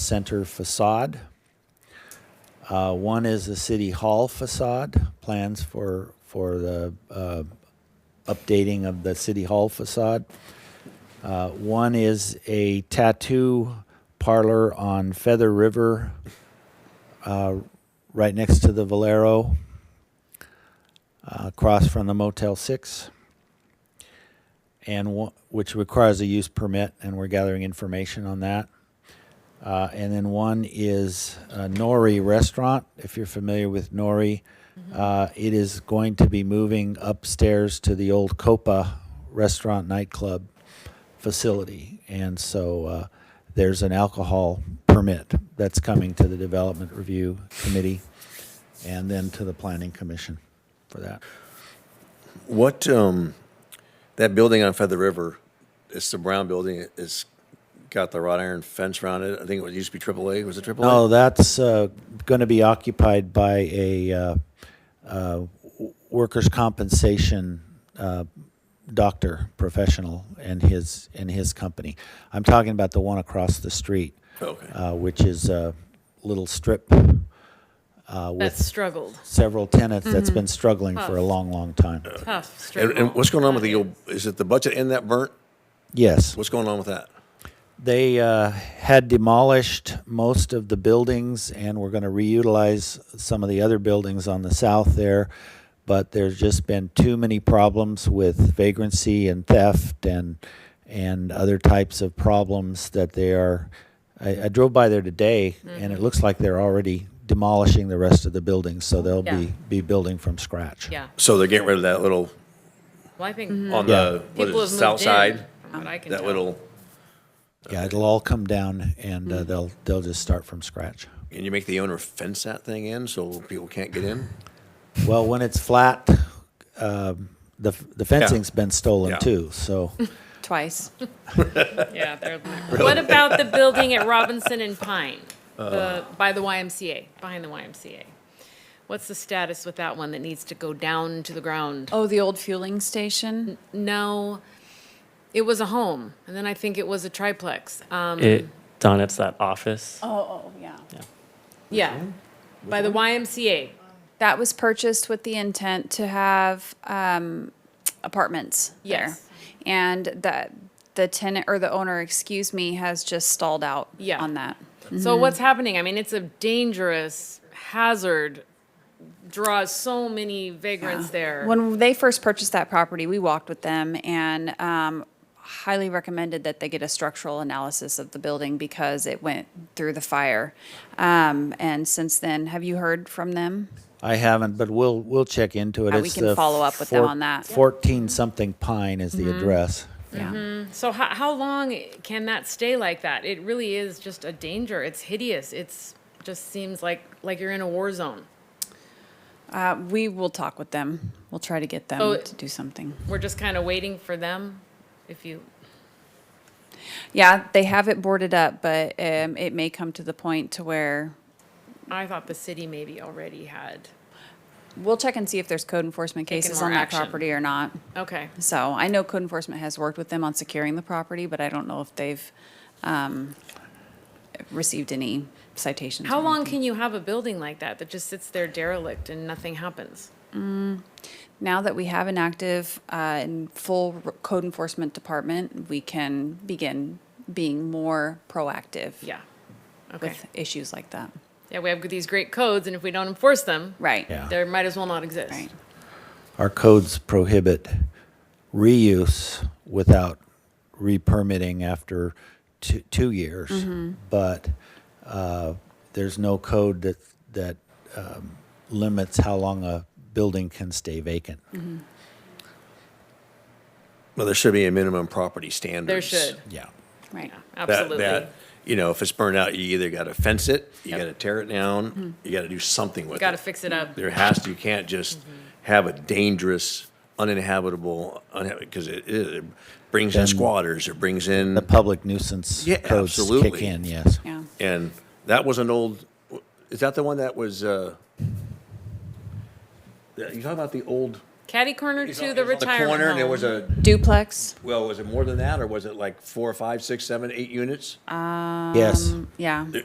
center facade. Uh, One is the city hall facade, plans for, for the uh, updating of the city hall facade. Uh, One is a tattoo parlor on Feather River, uh, right next to the Valero, uh, across from the Motel 6 and one, which requires a use permit, and we're gathering information on that. Uh, and then one is uh, Nori Restaurant. If you're familiar with Nori, uh, it is going to be moving upstairs to the old Copa Restaurant nightclub facility, and so uh, there's an alcohol permit that's coming to the Development Review Committee, and then to the Planning Commission for that. What, um, that building on Feather River, it's the brown building, it's got the wrought iron fence around it. I think it was- used to be AAA, was it AAA? No, that's uh, going to be occupied by a uh, uh, w- workers' compensation uh, doctor professional and his, and his company. I'm talking about the one across the street, Oh, Okay. uh, which is a little strip uh, That's with struggled. several tenants that's been struggling for a Tough. long, long time. Tough And, struggle. and what's going on with the, old? is it the budget and that burnt? Yes. What's going on with that? They uh, had demolished most of the buildings and were going to reutilize some of the other buildings on the south there, but there's just been too many problems with vagrancy and theft and and other types of problems that they are. I, I drove by there today, and it Mm-hmm. looks like they're already demolishing the rest of the buildings, so they'll Yeah. be be building from scratch. Yeah. Mm-hmm. So they're getting rid of that little, Well, I think on Yeah. the, what people have is it, moved south in, side? from what I can That tell. little, Yeah, it'll all come down, and Mm-hmm. uh, they'll they'll just start from scratch. can you make the owner fence that thing in so people can't get in? Well, when it's flat, um, the the fencing's been stolen Yeah. too. So Twice. Yeah. they're- What about the building at Robinson and Pine, Uh. the, by the YMCA, behind the YMCA? What's the status with that one that needs to go down to the ground? Oh, the old fueling station? No, it was a home, and then I think it was a triplex. Um, It, Don, it's that office. Oh, yeah. yeah, by the YMCA. That was purchased with the intent to have um, apartments there. Yes. And that the tenant or the owner, excuse me, has just stalled out Yeah. on that. So what's happening? I mean, it's a dangerous hazard. Draws so many vagrants there. When they first purchased that property, we walked with them and um, highly recommended that they get a structural analysis of the building because it went through the fire. Um, and since then, have you heard from them? I haven't, but we'll we'll check into it. Uh, we can the follow up with them on that. Mm-hmm. Fourteen something Pine is the address. Yeah. So how, how long can that stay like that? It really is just a danger. It's hideous. It's just seems like like you're in a war zone. Uh, we will talk with them. We'll try to get them So- to do something. We're just kind of waiting for them. If you Yeah, they have it boarded up, but um, it may come to the point to where I thought the city maybe already had. we'll check and see if there's code enforcement Taking cases more on that action. property or not. Okay. So I know code enforcement has worked with them on securing the property, but I don't know if they've um, received any citations. How or long anything. can you have a building like that that just sits there derelict and nothing happens? Now that we have an active uh, and full r- code enforcement department, we can begin being more proactive Yeah. Okay. with issues like that. Yeah, we have these great codes, and if we don't enforce them, Right. Yeah. there might as well not exist. Right. Our codes prohibit reuse without re-permitting after two, two years, Mm-hmm. but uh, there's no code that that um, limits how long a building can stay vacant. Mm-hmm. Well, there should be a minimum property standards. There should. Yeah. Right. that, Absolutely. that, you know, if it's burned out, you either got to fence it, you got to tear it down, you got to do something with it. Got to Mm-hmm. fix it up. There has to, you can't just Mm-hmm. have a dangerous, uninhabitable, because it, it brings in squatters, it brings in, the public nuisance Yeah, codes kick absolutely. in, yes. Yeah. and that was an old, is that the one that was, uh, you talking about the old? Caddy corner to it was the on retirement corner, and There home. was a, Duplex. Um, well, was it more than that, or was it like four, five, six, seven, eight units? Yes. Yeah.